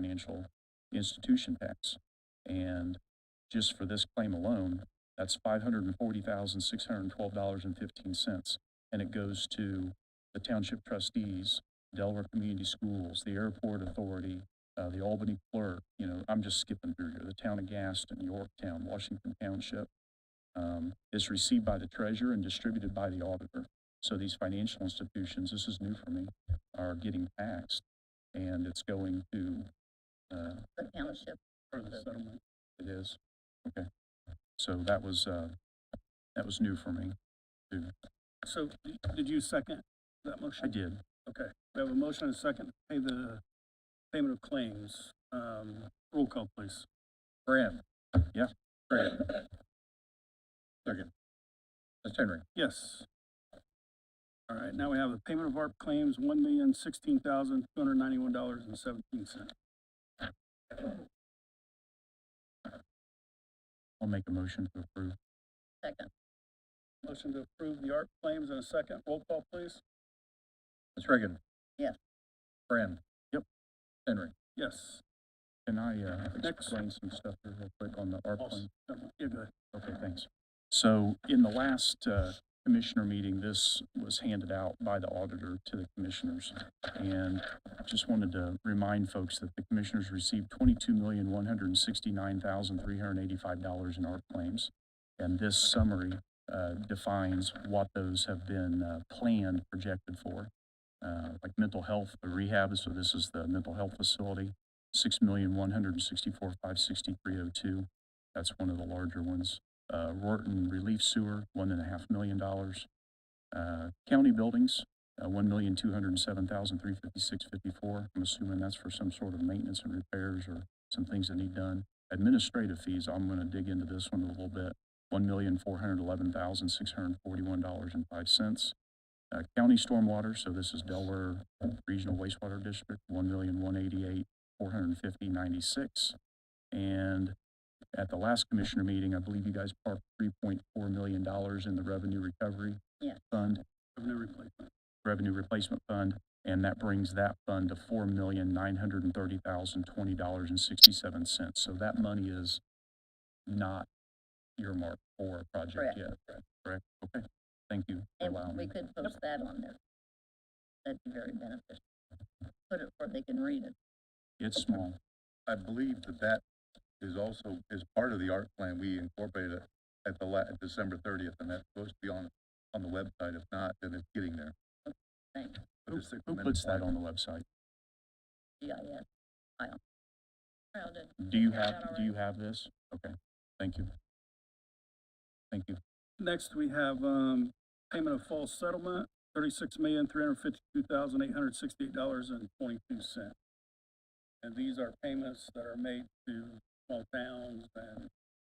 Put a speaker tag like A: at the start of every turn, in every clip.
A: financial institution tax. And just for this claim alone, that's five hundred and forty thousand, six hundred and twelve dollars and fifteen cents. And it goes to the township trustees, Delaware Community Schools, the Airport Authority, uh, the Albany Clerk, you know, I'm just skipping through here, the town of Gaston, Yorktown, Washington Township. Um, it's received by the treasurer and distributed by the auditor. So these financial institutions, this is new for me, are getting taxed and it's going to, uh,
B: the township.
A: for the settlement. It is, okay. So that was, uh, that was new for me.
C: So, did you second that motion?
A: I did.
C: Okay, we have a motion and a second, to pay the payment of claims, um, roll call please.
D: Brand.
A: Yeah.
D: Brand. Second. Ms. Henry.
C: Yes. All right, now we have the payment of ARP claims, one million sixteen thousand two hundred ninety-one dollars and seventeen cents.
A: I'll make a motion to approve.
B: Second,
C: Motion to approve the ARP claims in a second, roll call please.
D: Ms. Reagan.
B: Yes.
D: Brand.
A: Yep.
D: Henry.
C: Yes.
A: Can I, uh,
C: Next.
A: explain some stuff here real quick on the ARP
C: Also-
A: one?
C: Yeah, go ahead.
A: Okay, thanks. So in the last, uh, commissioner meeting, this was handed out by the auditor to the commissioners. And just wanted to remind folks that the commissioners received twenty-two million, one hundred and sixty-nine thousand, three hundred and eighty-five dollars in ARP claims. And this summary, uh, defines what those have been, uh, planned, projected for. Uh, like mental health rehab, so this is the mental health facility, six million, one hundred and sixty-four, five sixty-three oh two. That's one of the larger ones. Uh, Rorton Relief Sewer, one and a half million dollars. Uh, county buildings, uh, one million, two hundred and seven thousand, three fifty-six, fifty-four. I'm assuming that's for some sort of maintenance and repairs or some things that need done. Administrative fees, I'm gonna dig into this one a little bit. One million, four hundred eleven thousand, six hundred forty-one dollars and five cents. Uh, county stormwater, so this is Delaware Regional Wastewater District, one million, one eighty-eight, four hundred fifty, ninety-six. And at the last commissioner meeting, I believe you guys parked three point four million dollars in the revenue recovery
B: Yeah.
A: fund
C: Revenue replacement.
A: revenue replacement fund, and that brings that fund to four million, nine hundred and thirty thousand, twenty dollars and sixty-seven cents. So that money is not earmarked for a project
B: Correct.
A: yet, correct? Okay, thank you. for
B: and
A: allowing
B: we
A: me.
B: could post that on there. That'd be very beneficial. Put it where they can read it.
A: It's small.
D: I believe that that is also, is part of the art plan. We incorporated it at the la, at December thirtieth, and that's supposed to be on, on the website. If not, then it's getting there.
B: Thanks,
D: But
A: Who
D: the Sixth
A: who
D: Amendment
A: puts that
D: plan-
A: on the website?
B: GIS file. Kyle did.
C: Mm-hmm.
A: Do you
B: Is that
A: have,
B: all
A: do you
B: right?
A: have this? Okay, thank you. Thank you.
C: Next, we have, um, payment of false settlement, thirty-six million, three hundred fifty-two thousand, eight hundred sixty-eight dollars and twenty-two cents. And these are payments that are made to small towns and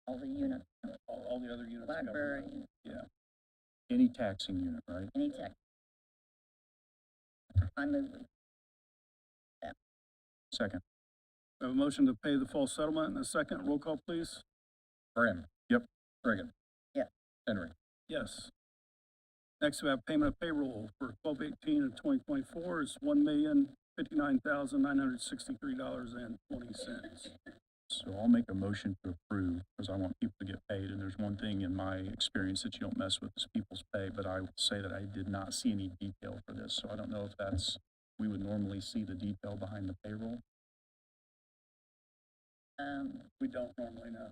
B: All the units,
C: all, all the other units. of government.
B: library,
A: Any taxing unit, right?
B: any tech. I move, we-
A: Second,
C: We have a motion to pay the full settlement and a second. Roll call, please.
D: Brand.
A: Yep.
D: Reagan.
B: Yes.
D: Henry.
C: Yes. Next, we have payment of payroll for twelve eighteen of twenty twenty-four is one million fifty-nine thousand nine hundred sixty-three dollars and twenty cents.
A: So I'll make a motion to approve, because I want people to get paid, and there's one thing in my experience that you don't mess with is people's pay, but I will say that I did not see any detail for this, so I don't know if that's, we would normally see the detail behind the payroll.
B: um,
C: We don't normally know.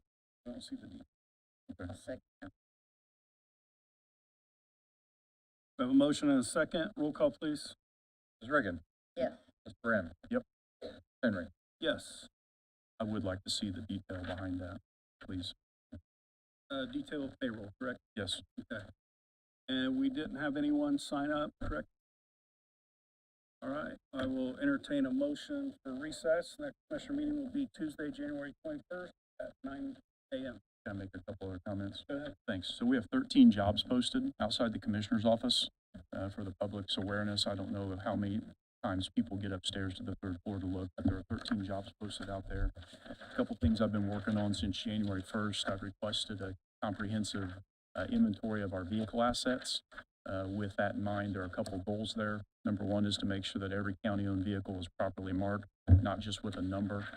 C: We don't see the detail.
B: a second,
C: We have a motion and a second. Roll call, please.
D: Ms. Reagan.
B: Yes.
D: Ms. Brand.
A: Yep.
D: Henry.
C: Yes.
A: I would like to see the detail behind that, please.
C: Uh, detail of payroll, correct?
A: Yes,
C: Okay. And we didn't have anyone sign up, correct? All right, I will entertain a motion for recess. Next commissioner meeting will be Tuesday, January twenty-first at nine AM.
A: can I make a couple other comments?
C: Go ahead.
A: Thanks. So we have thirteen jobs posted outside the commissioner's office, uh, for the public's awareness. I don't know how many times people get upstairs to the third floor to look, but there are thirteen jobs posted out there. A Couple things I've been working on since January first. I've requested a comprehensive, uh, inventory of our vehicle assets. Uh, with that in mind, there are a couple of goals there. Number one is to make sure that every county-owned vehicle is properly marked, not just with a number,